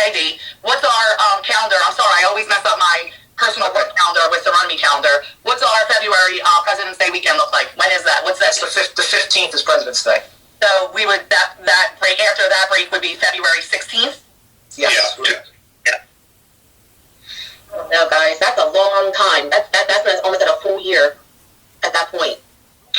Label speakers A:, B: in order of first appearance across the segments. A: Peggy, what's our um, calendar? I'm sorry, I always mess up my personal work calendar with Surround Me calendar. What's our February uh, President's Day weekend look like? When is that? What's that?
B: That's the fif- the fifteenth is President's Day.
A: So we would that that break after that break would be February 16th.
B: Yes.
C: Yeah, yeah.
A: No, guys, that's a long time. That's that, that's almost at a full year at that point.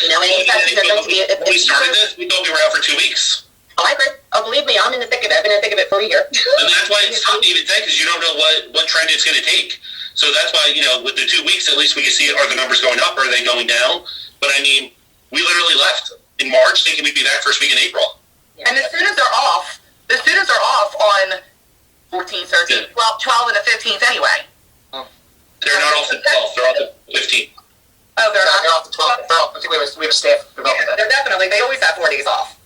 A: You know, and
C: Well,
A: it's actually
C: yeah,
A: going to be.
C: when we
A: It's,
C: started
A: it's,
C: this, we thought we were out for two weeks.
A: oh, I agree. Oh, believe me, I'm in the thick of it. I've been in the thick of it for a year.
C: And that's why it's tough to even think because you don't know what, what trend it's going to take. So that's why, you know, with the two weeks, at least we can see are the numbers going up or are they going down? But I mean, we literally left in March thinking we'd be back first week in April.
A: And the students are off. The students are off on 14th, 13th, 12th, 12th, and the 15th anyway.
C: They're not off the 12th, they're off the 15th.
A: Oh,
B: They're not- they're off the twelfth. They're off. I think we have a, we have a staff development day.
A: They're definitely. They always have four days off.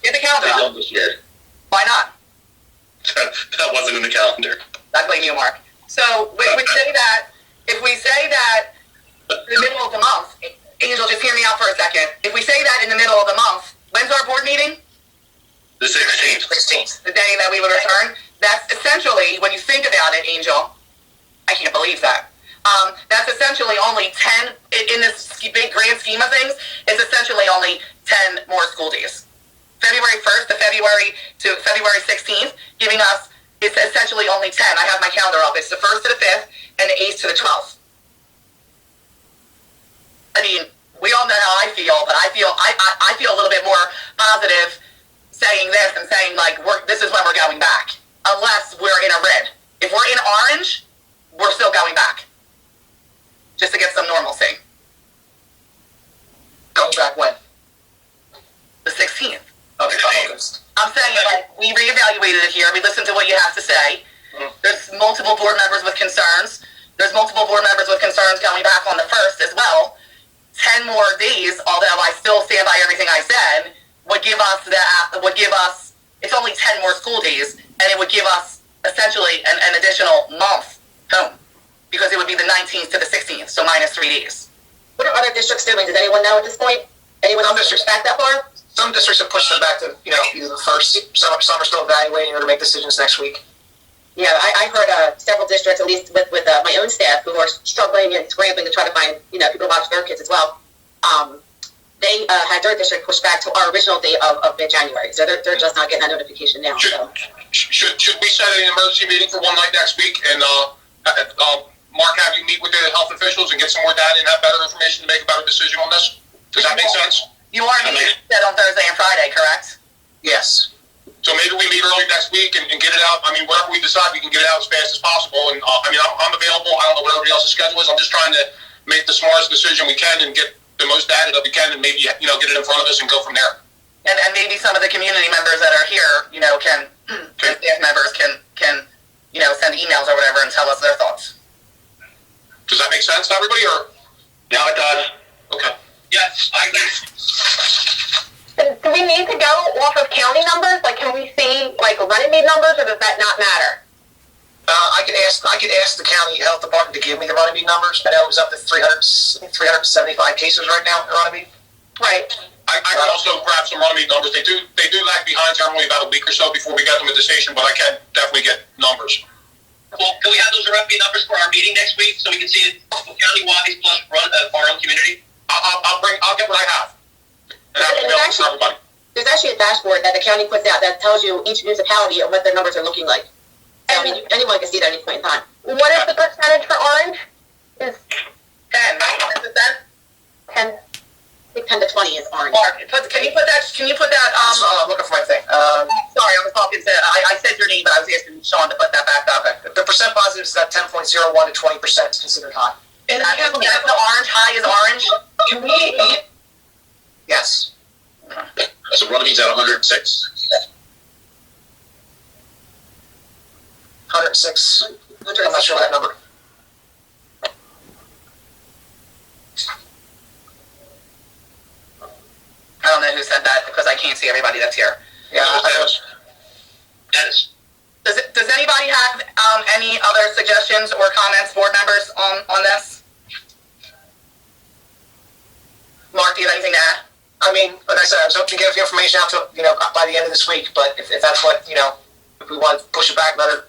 A: Get the
C: They
A: calendar out.
C: don't this year.
A: Why not?
C: that wasn't in the calendar.
A: I blame you, Mark. So we would say that if we say that the middle of the month, Angel, just hear me out for a second. If we say that in the middle of the month, when's our board meeting?
C: The 16th.
B: Sixteenth.
A: The day that we would return. That's essentially when you think about it, Angel. I can't believe that. Um, that's essentially only ten in in this sch- big grand scheme of things. It's essentially only ten more school days. February first to February to February sixteenth, giving us it's essentially only ten. I have my calendar up. It's the first to the fifth and the eighth to the twelfth. I mean, we all know how I feel, but I feel I, I, I feel a little bit more positive saying this and saying like we're this is when we're going back. Unless we're in a red. If we're in orange, we're still going back just to get some normalcy.
B: Going back when?
A: The 16th.
B: Okay. August.
A: I'm saying like we reevaluated it here. We listened to what you have to say.
B: Mhm.
A: There's multiple board members with concerns. There's multiple board members with concerns going back on the first as well. Ten more days, although I still stand by everything I said, would give us that would give us it's only ten more school days, and it would give us essentially an, an additional month home because it would be the 19th to the 16th, so minus three days.
D: What are other districts doing? Does anyone know at this point? Anyone else districts back that far?
B: Some districts have pushed them back to you know either the first. Some some are still evaluating or to make decisions next week.
D: Yeah, I, I heard uh, several districts, at least with, with uh, my own staff, who are struggling and scrambling to try to find you know people to watch their kids as well. Um, they uh, had their district pushed back to our original date of, of mid January, so they're, they're just not getting that notification now.
E: Should,
D: So.
E: should, should we set an emergency meeting for one night next week and, uh, uh, uh, Mark, have you meet with the health officials and get some more data and have better information to make a better decision on this? Does that make sense?
A: You are meeting that on Thursday and Friday, correct?
B: Yes.
E: So maybe we meet early next week and, and get it out. I mean, whatever we decide, we can get it out as fast as possible. And, uh, I mean, I'm, I'm available. I don't know what everybody else's schedule is. I'm just trying to make the smartest decision we can and get the most data that we can and maybe, you know, get it in front of us and go from there.
A: and, and maybe some of the community members that are here, you know, can
E: Okay.
A: staff members can can you know send emails or whatever and tell us their thoughts.
E: Does that make sense to everybody or?
C: Now it does.
E: Okay.
C: Yes, I agree.
D: Do we need to go off of county numbers? Like, can we see like Runnymede numbers, or does that not matter?
B: Uh, I could ask I could ask the county health department to give me the Runnymede numbers. I know it was up to 300, 375 cases right now in Runnymede.
D: Right.
E: I, I can also grab some Runnymede numbers. They do they do lag behind generally about a week or so before we get them at the station, but I can definitely get numbers.
C: Well, can we have those Runnymede numbers for our meeting next week so we can see it county-wise plus run, uh, our own community?
E: I'll, I'll, I'll bring I'll get what I have, and I'll email it to everybody.
D: There's actually a dashboard that the county puts out that tells you each municipality and what their numbers are looking like. So, I mean, anyone can see it at any point in time.
F: What is the percentage for orange? Is
A: Ten, right? Ten percent.
F: ten?
D: I think 10 to 20 is orange.
A: Mark, put, can you put that? Can you put that?
B: Um,
A: Um,
B: I'm looking for my thing. Um,
A: sorry, I was talking to. I, I said your name, but I was asking Sean to put that back up.
B: okay. The percent positive is about 10.01 to 20 percent is considered high.
A: And that's, that's the orange. High is orange.
B: Can we? Yes.
C: So Runnymede's at 106.
B: 106. I'm not
D: 106.
B: sure that number.
A: I don't know who said that because I can't see everybody that's here.
B: Yeah. I-
C: That is.
A: Does it, Does anybody have um, any other suggestions or comments, board members, on on this? Mark, do you have anything to add?
B: I mean, like I said, I was hoping to get the information out to you know by the end of this week. But if, if that's what you know, if we want to push it back another